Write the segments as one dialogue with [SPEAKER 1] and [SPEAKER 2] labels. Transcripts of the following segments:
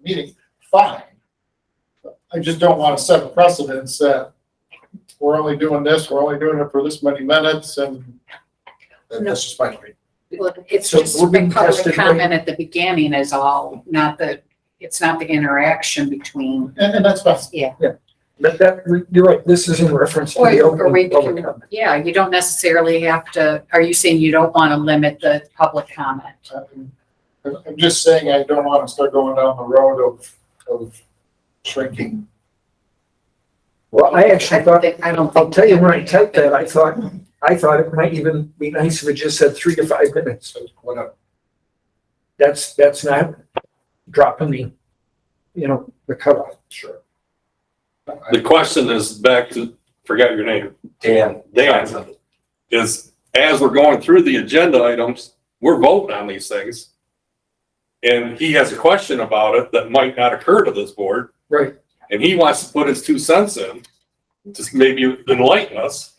[SPEAKER 1] meeting, fine. I just don't want to set a precedence that we're only doing this, we're only doing it for this many minutes and that- that's just my opinion.
[SPEAKER 2] Well, it's
[SPEAKER 3] So
[SPEAKER 2] just
[SPEAKER 3] we're being
[SPEAKER 2] the public
[SPEAKER 3] tested right-
[SPEAKER 2] comment at the beginning is all, not the, it's not the interaction between,
[SPEAKER 1] And, and that's fine.
[SPEAKER 3] But that, you're right, this is in reference to
[SPEAKER 2] Or-
[SPEAKER 3] the
[SPEAKER 2] or we
[SPEAKER 3] open public
[SPEAKER 2] can-
[SPEAKER 3] comment.
[SPEAKER 2] yeah, you don't necessarily have to, are you saying you don't want to limit the public comment?
[SPEAKER 1] I'm- I'm just saying I don't want to start going down the road of, of shrinking.
[SPEAKER 3] Well, I
[SPEAKER 2] don't
[SPEAKER 3] actually thought,
[SPEAKER 2] think- I don't think.
[SPEAKER 3] I'll tell you, when I typed that, I thought, I thought it might even be nice if it just said three to five minutes.
[SPEAKER 1] So whatever.
[SPEAKER 3] That's, that's not dropping the, you know, the cutoff.
[SPEAKER 1] Sure.
[SPEAKER 4] The question is back to, forgot your name,
[SPEAKER 5] Dan.
[SPEAKER 4] Dan, is as we're going through the agenda items, we're voting on these things. And he has a question about it that might not occur to this board.
[SPEAKER 3] Right.
[SPEAKER 4] And he wants to put his two cents in, just maybe enlighten us.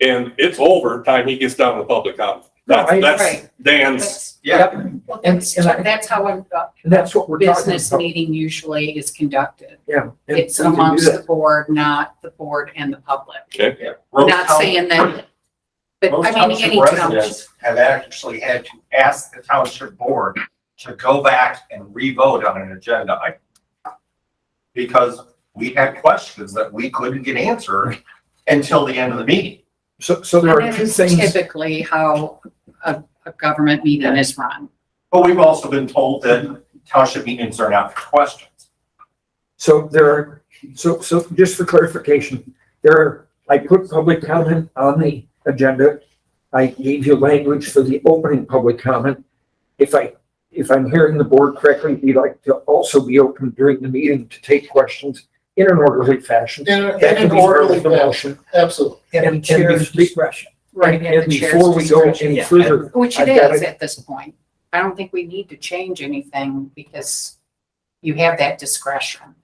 [SPEAKER 4] And it's over time he gets down to public comment.
[SPEAKER 3] No,
[SPEAKER 4] That's,
[SPEAKER 3] I-
[SPEAKER 4] that's Dan's,
[SPEAKER 5] Yeah.
[SPEAKER 3] And
[SPEAKER 2] Well,
[SPEAKER 3] and
[SPEAKER 2] That's
[SPEAKER 3] I-
[SPEAKER 2] that's how a
[SPEAKER 3] that's what
[SPEAKER 2] a
[SPEAKER 3] we're talking
[SPEAKER 2] business
[SPEAKER 3] about.
[SPEAKER 2] meeting usually is conducted.
[SPEAKER 3] Yeah. and
[SPEAKER 2] It's
[SPEAKER 3] we can do
[SPEAKER 2] amongst
[SPEAKER 3] that.
[SPEAKER 2] the board, not the board and the public.
[SPEAKER 4] Most
[SPEAKER 2] Not
[SPEAKER 5] town-
[SPEAKER 2] saying that, but
[SPEAKER 5] Most
[SPEAKER 2] I mean,
[SPEAKER 5] township
[SPEAKER 2] any township.
[SPEAKER 5] residents have actually had to ask the township board to go back and revote on an agenda item. Because we had questions that we couldn't get answered until the end of the meeting.
[SPEAKER 3] So, so there are two
[SPEAKER 2] That's
[SPEAKER 3] things,
[SPEAKER 2] Typically how a, a government meeting is run.
[SPEAKER 5] But we've also been told that township meetings are not for questions.
[SPEAKER 3] so there are, so, so just for clarification, there are, I put public comment on the agenda. I gave you language for the opening public comment. If I, if I'm hearing the board correctly, we'd like to also be open during the meeting to take questions in an orderly fashion.
[SPEAKER 1] In, a- in
[SPEAKER 3] That can
[SPEAKER 1] an
[SPEAKER 3] be part
[SPEAKER 1] orderly
[SPEAKER 3] of the
[SPEAKER 1] fashion,
[SPEAKER 3] motion.
[SPEAKER 1] absolutely.
[SPEAKER 3] And, and discretion.
[SPEAKER 2] Right. at
[SPEAKER 3] And
[SPEAKER 2] the chair's
[SPEAKER 3] before we go
[SPEAKER 2] discretion.
[SPEAKER 3] any further,
[SPEAKER 2] Which it
[SPEAKER 3] I've got
[SPEAKER 2] is
[SPEAKER 3] it.
[SPEAKER 2] at this point. I don't think we need to change anything because you have that discretion.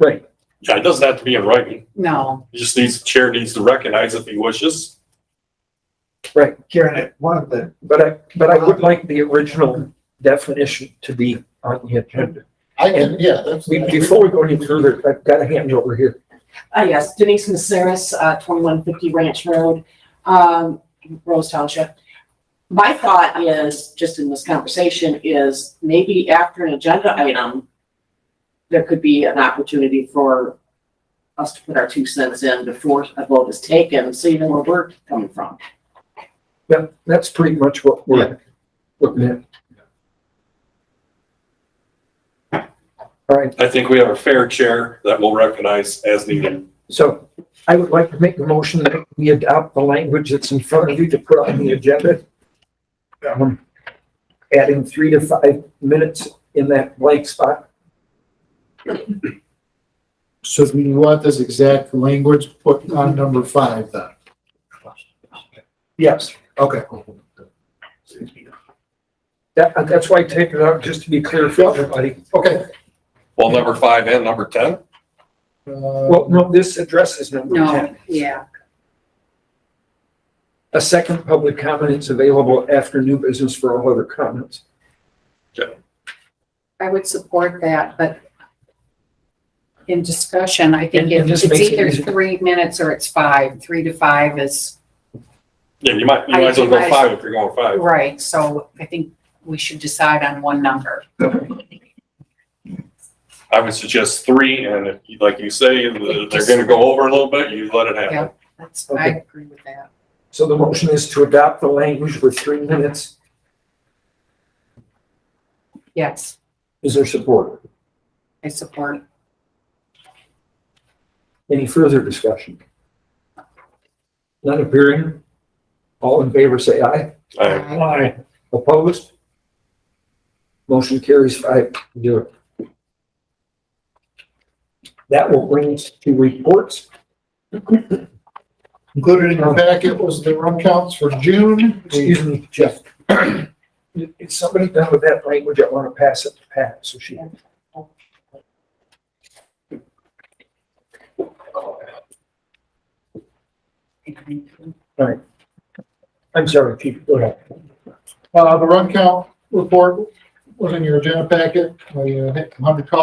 [SPEAKER 3] right,
[SPEAKER 4] yeah, it doesn't have to be in writing.
[SPEAKER 2] No,
[SPEAKER 4] He Just needs, chair needs to recognize if he wishes.
[SPEAKER 3] right.
[SPEAKER 6] Karen, one of the,
[SPEAKER 3] But I, but I would like the original definition to be on the agenda.
[SPEAKER 1] I can, yeah, that's.
[SPEAKER 3] We- Before we go any further, I've got a hand over here.
[SPEAKER 7] Uh, yes, Denise Naceris, uh, twenty-one fifty Ranch Road, um, Rose Township. My thought is, just in this conversation, is maybe after an agenda item, there could be an opportunity for us to put our two cents in before a vote is taken, so you know where we're coming from.
[SPEAKER 3] That, that's pretty much what we're looking at. All right,
[SPEAKER 4] I think we have a fair chair that will recognize as needed.
[SPEAKER 3] so I would like to make the motion that we adopt the language that's in front of you to put on the agenda. Um, Adding three to five minutes in that blank spot.
[SPEAKER 6] so we want this exact language put on number five then?
[SPEAKER 3] Yes.
[SPEAKER 6] Okay.
[SPEAKER 3] That, that's why I take it out, just to be clear for everybody.
[SPEAKER 1] Okay.
[SPEAKER 4] Well, number five and number ten?
[SPEAKER 1] Uh,
[SPEAKER 3] Well, no, this address is number ten.
[SPEAKER 2] no, yeah.
[SPEAKER 3] A second public comment is available after new business for all other comments.
[SPEAKER 2] I would support that, but in discussion, I think
[SPEAKER 3] And- and
[SPEAKER 2] it's
[SPEAKER 3] this makes it
[SPEAKER 2] either
[SPEAKER 3] easier.
[SPEAKER 2] three minutes or it's five. Three to five is
[SPEAKER 4] Yeah, you might, you
[SPEAKER 2] I
[SPEAKER 4] might as well
[SPEAKER 2] think
[SPEAKER 4] go
[SPEAKER 2] I-
[SPEAKER 4] five if you're going five.
[SPEAKER 2] right. So I think we should decide on one number.
[SPEAKER 4] I would suggest three, and if, you- like you say, the- they're gonna go over a little bit, you let it happen.
[SPEAKER 2] That's, I
[SPEAKER 3] Okay.
[SPEAKER 2] agree with that.
[SPEAKER 3] So the motion is to adopt the language with three minutes.
[SPEAKER 2] Yes,
[SPEAKER 3] Is there support?
[SPEAKER 2] I support.
[SPEAKER 3] Any further discussion? None appearing? All in favor, say aye.
[SPEAKER 4] I-
[SPEAKER 3] Aye. Opposed? Motion carries five zero. That will bring us to reports.
[SPEAKER 1] Included in your packet was the run counts for June. We-
[SPEAKER 3] Excuse me, Jeff. Is somebody done with that language? I want to pass it to Pat, so she. I'm sorry, Chief, go ahead.
[SPEAKER 1] Uh, the run count report was in your agenda packet. We uh, hit 100 calls